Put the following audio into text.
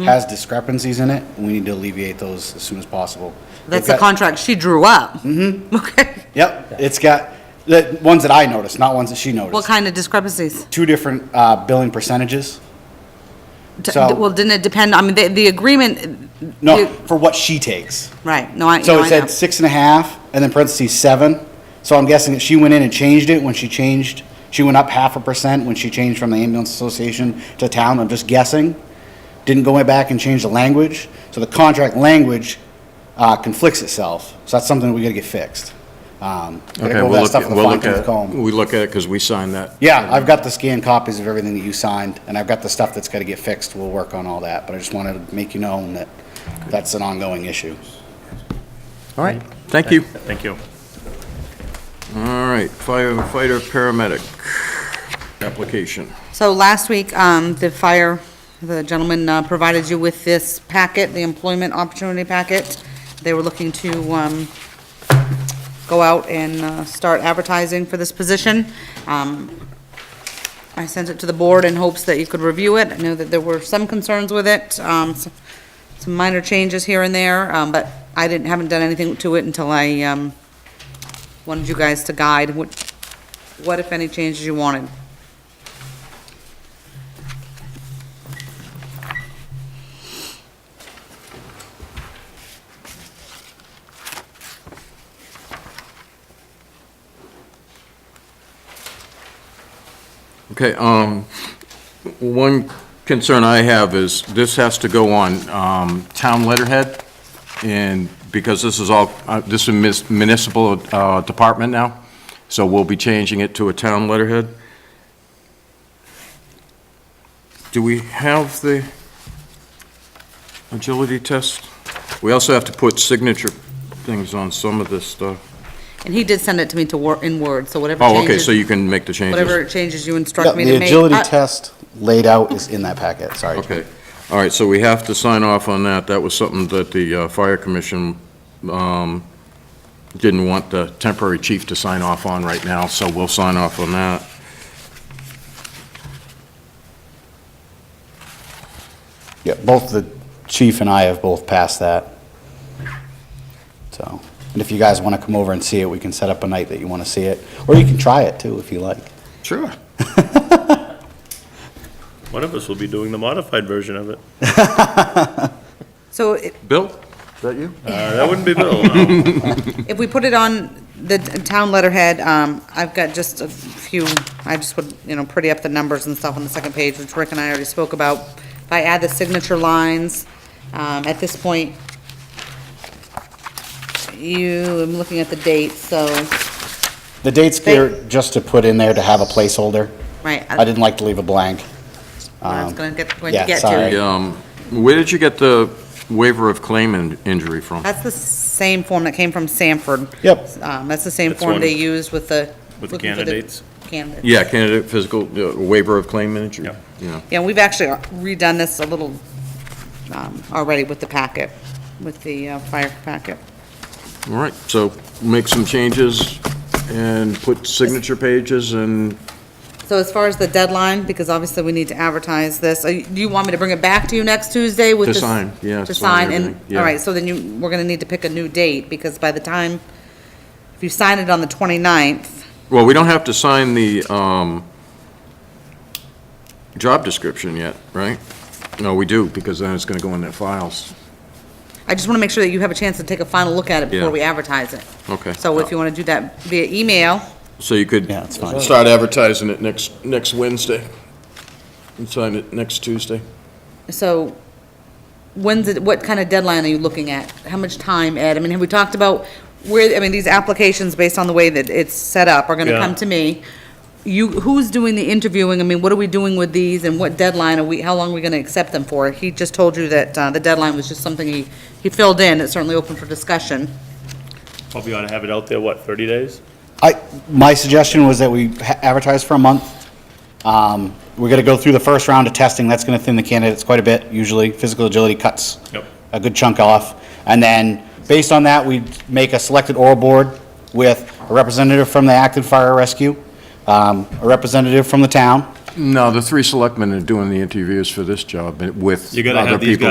Mm-hmm. has discrepancies in it, we need to alleviate those as soon as possible. That's the They've got- contract she drew up? Mm-hmm. Okay. Yep, it's got, the ones that I noticed, not ones that she What noticed. kind of discrepancies? Two different uh, billing percentages. D- So- Well, didn't it depend, I mean, the, the agreement, No, You- for what she takes. right, no, I, no, So I it know. said six and a half, and then parentheses seven. So I'm guessing that she went in and changed it when she changed, she went up half a percent when she changed from the ambulance association to town, I'm just guessing. Didn't go back and change the language, so the contract language uh, conflicts itself. So that's something we gotta get fixed. Um, gotta Okay, go over we'll that look, stuff with the we'll look fine-tooth at, comb. we look at it because we signed that. Yeah, I've got the scanned copies of everything that you signed, and I've got the stuff that's gotta get fixed, we'll work on all that, but I just wanted to make you know that that's an ongoing issue. All right, thank you. Thank you. All right, firefighter, paramedic application. So last week, um, the fire, the gentleman uh, provided you with this packet, the employment opportunity packet. They were looking to, um, go out and, uh, start advertising for this position. Um, I sent it to the board in hopes that you could review it. I know that there were some concerns with it, um, s- some minor changes here and there, um, but I didn't, haven't done anything to it until I, um, wanted you guys to guide what, what if any changes you wanted. Okay, um, one concern I have is this has to go on, um, town letterhead. And because this is all, uh, this is mis- municipal, uh, department now, so we'll be changing it to a town letterhead. Do we have the agility test? We also have to put signature things on some of this stuff. And he did send it to me to wor, in Word, so whatever Oh, okay, changes, so you can make the changes. whatever changes you Yeah, instruct me to the make. Uh, agility I- test laid out is in that packet, sorry. Okay, all right, so we have to sign off on that. That was something that the uh, Fire Commission um, didn't want the temporary chief to sign off on right now, so we'll sign off on that. Yeah, both the chief and I have both passed that. So, and if you guys want to come over and see it, we can set up a night that you want to see it, or you can try it too if you like. Sure. One of us will be doing the modified version of it. So i- Bill? Is that you? Uh, That wouldn't be Bill, no. if we put it on the t- town letterhead, um, I've got just a few, I just would, you know, pretty up the numbers and stuff on the second page, which Rick and I already spoke about. If I add the signature lines, um, at this point, you, I'm looking at the date, so, The date's there just to put in there to have a placeholder. right, I didn't like to leave a blank. Um, I was gonna get, going to yeah, get sorry. to. Um, Where did you get the waiver of claim in- injury from? That's the same form that came from Sanford. Yep. Um, that's the same That's form one- they used with the. with the looking for candidates? Candidates. Yeah, candidate physical, uh, waiver of claim injury? Yep. Yeah. Yeah, we've actually redone this a little, um, already with the packet, with the uh, fire packet. All right, so make some changes and put signature pages and So as far as the deadline, because obviously we need to advertise this, uh, do you want me to bring it back to you next Tuesday with To this? sign, yeah, To to sign, sign and, everything, yeah. all right, so then you, we're gonna need to pick a new date, because by the time, if you sign it on the 29th, Well, we don't have to sign the um, job description yet, right? No, we do, because then it's going to go in their files. I just wanna make sure that you have a chance to take a final look at it before Yeah. we advertise it. Okay. So if you wanna do that via email, So you could Yeah, it's fine. start advertising it next, next Wednesday, and sign it next Tuesday. So when's it, what kind of deadline are you looking at? How much time, Ed? I mean, have we talked about where, I mean, these applications, based on the way that it's set up, are gonna Yeah. come to me. You, who's doing the interviewing? I mean, what are we doing with these and what deadline are we, how long are we gonna accept them for? He just told you that, uh, the deadline was just something he, he filled in. It's certainly open for discussion. Probably ought to have it out there, what, 30 days? I, my suggestion was that we ha- advertise for a month. Um, we're gonna go through the first round of testing, that's gonna thin the candidates quite a bit, usually, physical agility cuts. Yep. A good chunk off, and then, based on that, we make a selected oral board with a representative from the Acton Fire Rescue, um, a representative from the town, No, the three selectmen are doing the interviews for this job and with You gotta have other these people